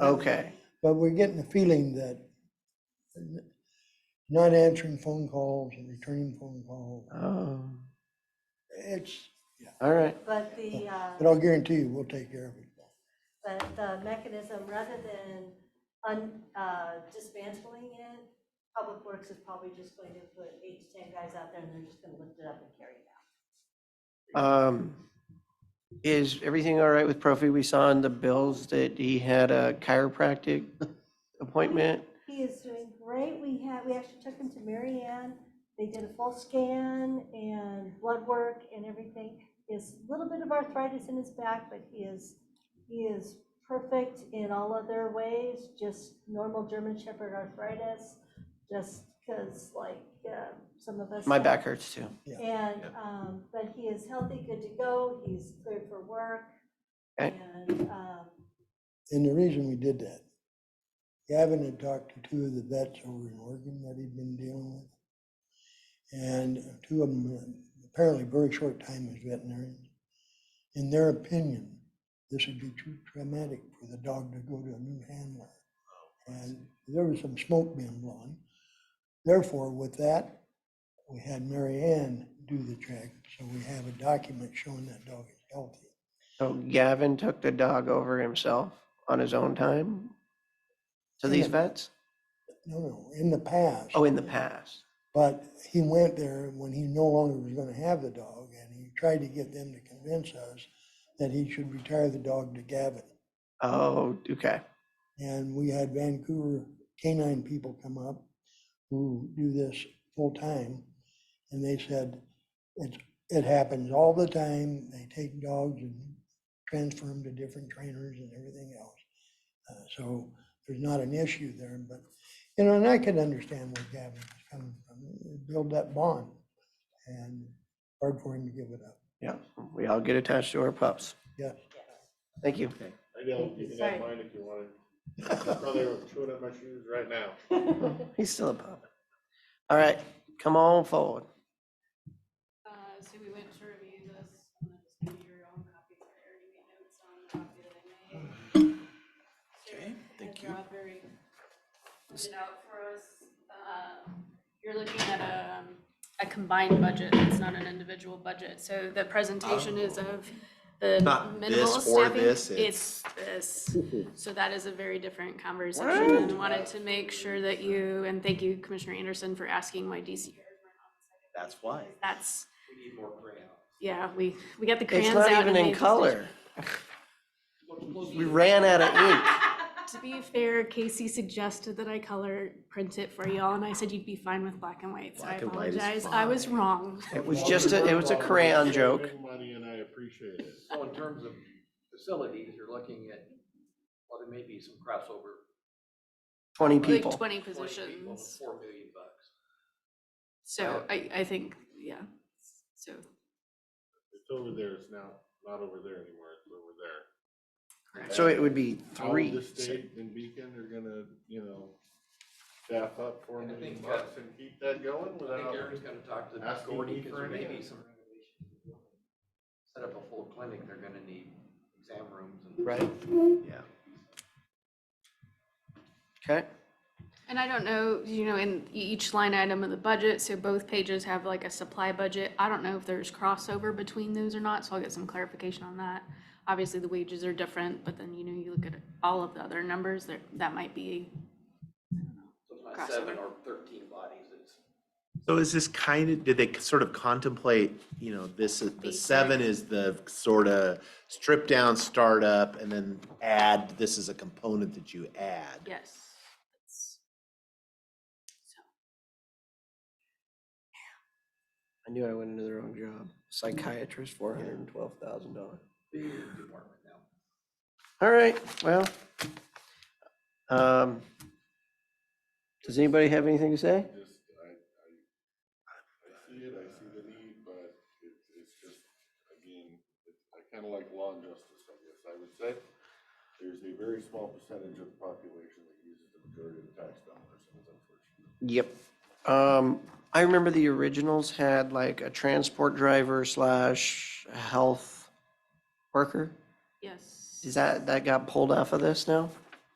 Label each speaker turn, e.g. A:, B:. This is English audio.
A: Okay,
B: uh, But we're getting the feeling that not answering phone calls and returning phone calls,
A: oh,
B: it's,
A: all right,
C: But the, uh,
B: but I'll guarantee you, we'll take care of it.
C: but the mechanism, rather than un- uh, dismantling it, Public Works is probably just going to put eight to 10 guys out there and they're just going to lift it up and carry it out.
A: um, is everything all right with Profi? We saw in the bills that he had a chiropractic appointment.
C: He is doing great. We had, we actually took him to Mary Ann. They did a full scan and blood work and everything. He has a little bit of arthritis in his back, but he is, he is perfect in all other ways, just normal German Shepherd arthritis, just because like uh, some of us.
A: My
C: have-
A: back hurts too.
C: And, um, but he is healthy, good to go, he's cleared for work.
A: Okay.
C: And, um,
B: And the reason we did that, Gavin had talked to two of the vets over in Oregon that he'd been dealing with. And two of them, were apparently very short time as veterinarians. In their opinion, this would be too traumatic for the dog to go to a new handler. And there was some smoke being blown. Therefore, with that, we had Mary Ann do the check, so we have a document showing that dog is healthy.
A: So Gavin took the dog over himself on his own time to these vets?
B: No, no, in the past.
A: Oh, in the past.
B: But he went there when he no longer was gonna have the dog, and he tried to get them to convince us that he should retire the dog to Gavin.
A: Oh, okay.
B: And we had Vancouver canine people come up who do this full-time, and they said, it, it happens all the time, they take dogs and transfer them to different trainers and everything else. Uh, So there's not an issue there, but, you know, and I can understand where Gavin is coming from, build that bond, and hard for him to give it up.
A: Yeah, we all get attached to our pups.
B: Yeah.
A: Thank you.
D: I don't, you can
C: Sorry.
D: have mine if you want it. Probably chewing up my shoes right now.
A: He's still a pup. All right, come on forward.
E: Uh, so we went to review this, and then just give you your own copy, I already made notes on the copy that I made. Okay, thank you. Rob very put it out for us. Um, You're looking at a, um, a combined budget, it's not an individual budget, so the presentation is of the
F: Um, Not
E: minimal
F: this or
E: staffing.
F: this,
E: It's this, so that is a very different conversation, and wanted to make sure that you, and thank you Commissioner Anderson for asking why DCRs were not
F: That's why.
E: that's,
F: We need more printout.
E: yeah, we, we got the crayons
A: It's
E: out.
A: not even
E: and they
A: in
E: just-
A: color. We ran out of ink.
E: To be fair, Casey suggested that I color print it for y'all, and I said you'd be fine with black and white, so I
F: Black and white is
E: apologize. I was
F: fine.
E: wrong.
A: It was just, a it was a crayon joke.
D: Money and I appreciate it.
G: So in terms of facilities, you're looking at, well, there may be some crossover.
A: 20
E: Like
A: people.
E: twenty
G: 20 people with
E: positions,
G: Four million bucks.
E: so I, I think, yeah, so,
D: It's over there, it's now, not over there anymore, it's over there.
E: correct.
A: So it would be
D: All of
A: three.
D: The state and Beacon are gonna, you know, staff up for
G: And I
D: me
G: think, uh,
D: bucks and keep that going
G: I think
D: without.
G: Aaron's gonna talk to
D: Ask me
G: Gordy,
D: for
G: because there may
D: any.
G: be some renovations. Set up a full clinic, they're gonna need exam rooms and.
A: Right,
G: Yeah.
A: okay.
E: And I don't know, you know, in e- each line item of the budget, so both pages have like a supply budget. I don't know if there's crossover between those or not, so I'll get some clarification on that. Obviously, the wages are different, but then, you know, you look at all of the other numbers, there, that might be
G: So it's not seven or thirteen bodies, it's.
F: So is this kind of, did they sort of contemplate, you know, this, is- the seven is the sort of strip down startup and then add, this is a component that you add?
E: Yes.
A: I knew I went into the wrong job. Psychiatrist, $412,000.
G: big department now.
A: All right, well. um, Does anybody have anything to say?
D: Just, I, I, I see it, I see the need, but it's, it's just, again, it's, I kinda like law and justice, I guess, I would say. There's a very small percentage of the population that uses the majority of the tax dollars, and it's unfortunate.
A: Yep. Um, I remember the originals had like a transport driver slash health worker.
E: Yes.
A: Is that, that got pulled off of this now?